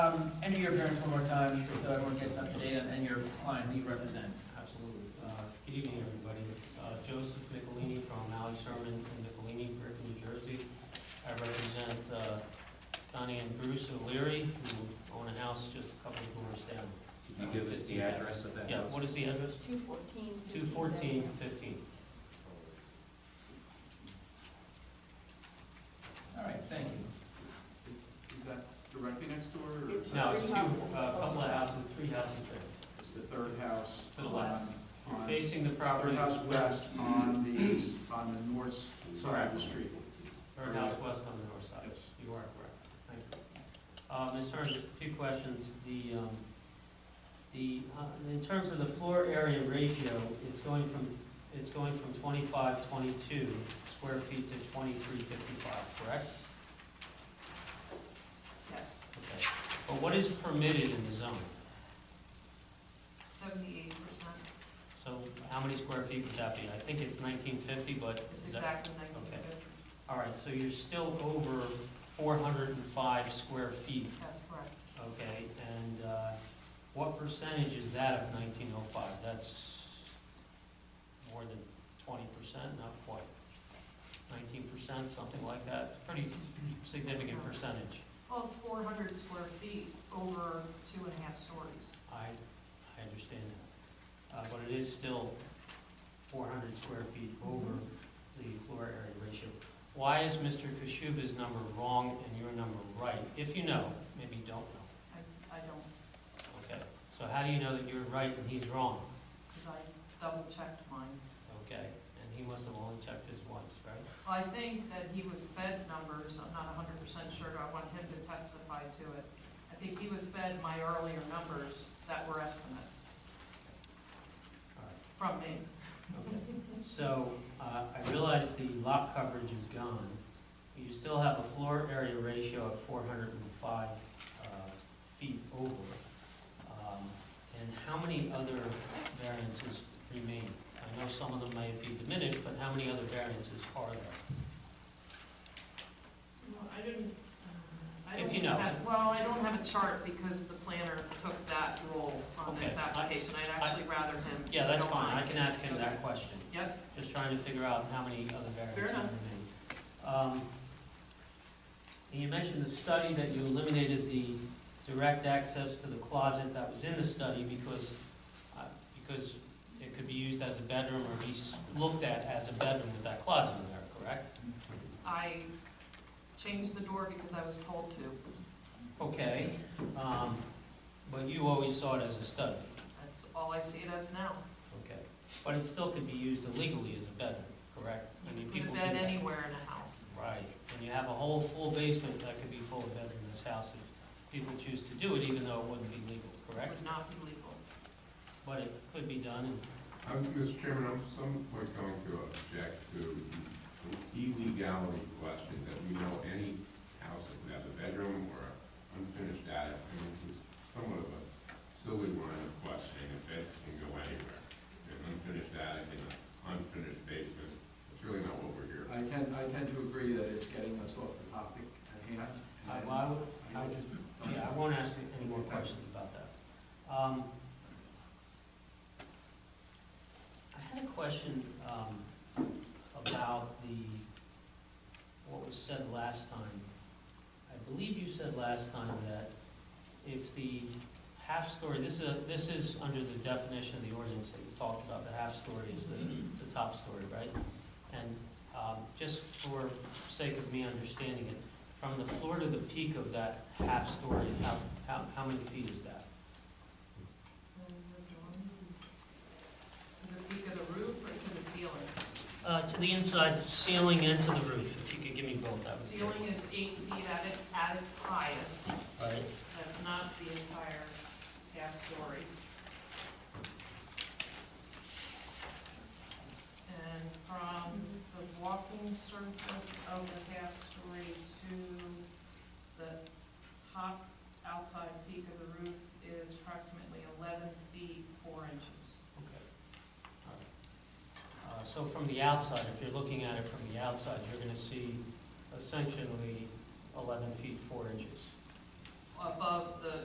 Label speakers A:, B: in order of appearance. A: and to Um, your parents one more time, just so everyone gets up to date, on- and your client who you represent.
B: Absolutely. Uh, Good evening, everybody. Uh, Joseph Nicolini from Malley Sherman in Nicolini, Brick, New Jersey. I represent uh, Connie and Bruce O'Leary, who own a house just a couple of doors down.
C: Could you give us the address of that
B: Yeah,
C: house?
B: what is the address?
D: 214.
B: 214 15th.
A: All right, thank you.
E: Is that directly next door, or
D: It's
E: is
B: No, it's
D: three
B: two, uh,
D: houses.
B: a couple of houses, three houses there.
E: the third house?
B: To the left.
E: on- on-
B: Facing the property.
E: Third house west on the, s- on the north s- side of
B: Correct.
E: the street.
B: Third house west on the north side.
E: Yes.
B: You are correct. Thank you. Uh, Ms. Hearn, just a few questions. The, um, the, uh, in terms of the floor area ratio, it's going from, it's going from twenty-five, twenty-two square feet to twenty-three, fifty-five, correct?
D: Yes,
B: Okay. But what is permitted in the zone?
D: 78%.
B: So how many square feet would that be? I think it's nineteen fifty, but
D: It's
B: is that?
D: exactly 19.
B: okay. All right, so you're still over four hundred and five square feet
D: That's correct.
B: Okay, and uh, what percentage is that of nineteen oh five? That's more than twenty percent, not quite. Nineteen percent, something like that. It's a pretty significant percentage.
D: Well, it's 400 square feet over two and a half stories.
B: I, I understand that. Uh, But it is still four hundred square feet over the floor area ratio. Why is Mr. Kashuba's number wrong and your number right? If you know, maybe you don't know.
D: I, I don't,
B: Okay, so how do you know that you're right and he's wrong?
D: because I double checked mine.
B: Okay, and he must have only checked his once, right?
D: Well, I think that he was fed numbers, I'm not hundred percent sure, I want him to testify to it. I think he was fed my earlier numbers that were estimates
B: All right.
D: from me.
B: Okay. So, uh, I realize the lot coverage is gone, but you still have a floor area ratio of four hundred and five, uh, feet over. Um, And how many other variances remain? I know some of them may be diminished, but how many other variances are there?
D: Well, I didn't, uh, I
B: If
D: don't
B: you know.
D: have- Well, I don't have a chart because the planner took that role on this
B: Okay, I-
D: application, I'd actually rather him.
B: Yeah, that's
D: go
B: fine,
D: on.
B: I can ask him that question.
D: Yep,
B: just trying to figure out how many other
D: Fair
B: variances
D: enough.
B: remain. Um, And you mentioned the study that you eliminated the direct access to the closet that was in the study because, uh, because it could be used as a bedroom or be s- looked at as a bedroom with that closet in there, correct?
D: I changed the door because I was told to,
B: Okay, um, but you always saw it as a study,
D: that's all I see it as now.
B: okay? But it still could be used illegally as a bedroom, correct? I
D: You
B: mean,
D: can put
B: people
D: a
B: do
D: bed
B: that.
D: anywhere in a house.
B: Right, and you have a whole full basement that could be full of beds in this house if people choose to do it, even though it wouldn't be legal,
D: It
B: correct?
D: would not be legal.
B: But it could be done, and,
F: I'm, Mr. Chairman, I'm somewhat going to object to the illegality questions, that we know any house that would have a bedroom or an unfinished attic, I mean, this is somewhat of a silly line of questioning, if beds can go anywhere. An unfinished attic and an unfinished basement, that's really not what we're here.
E: I tend, I tend to agree that it's getting us off the topic at hand.
B: I, well, I would, I would
E: And
B: just, yeah, I won't ask you any more questions about that. Um, I had a question, um, about the, what was said last time. I believe you said last time that if the half-story, this is, a- this is under the definition of the ordinance that you talked about, the half-story is the, the top story, right? And, um, just for sake of me understanding it, from the floor to the peak of that half story, how, how, how many feet is that?
D: To the peak of the roof or to the ceiling?
B: Uh, to the inside ceiling and to the roof, if you could give me both, that would be great.
D: Ceiling is eight feet at it, at its highest.
B: Right,
D: That's not the entire half story. And from the walking surface of the half story to the top outside peak of the roof is approximately eleven feet, four inches.
B: okay. All right. Uh, so from the outside, if you're looking at it from the outside, you're gonna see essentially eleven feet, four inches.
D: Above the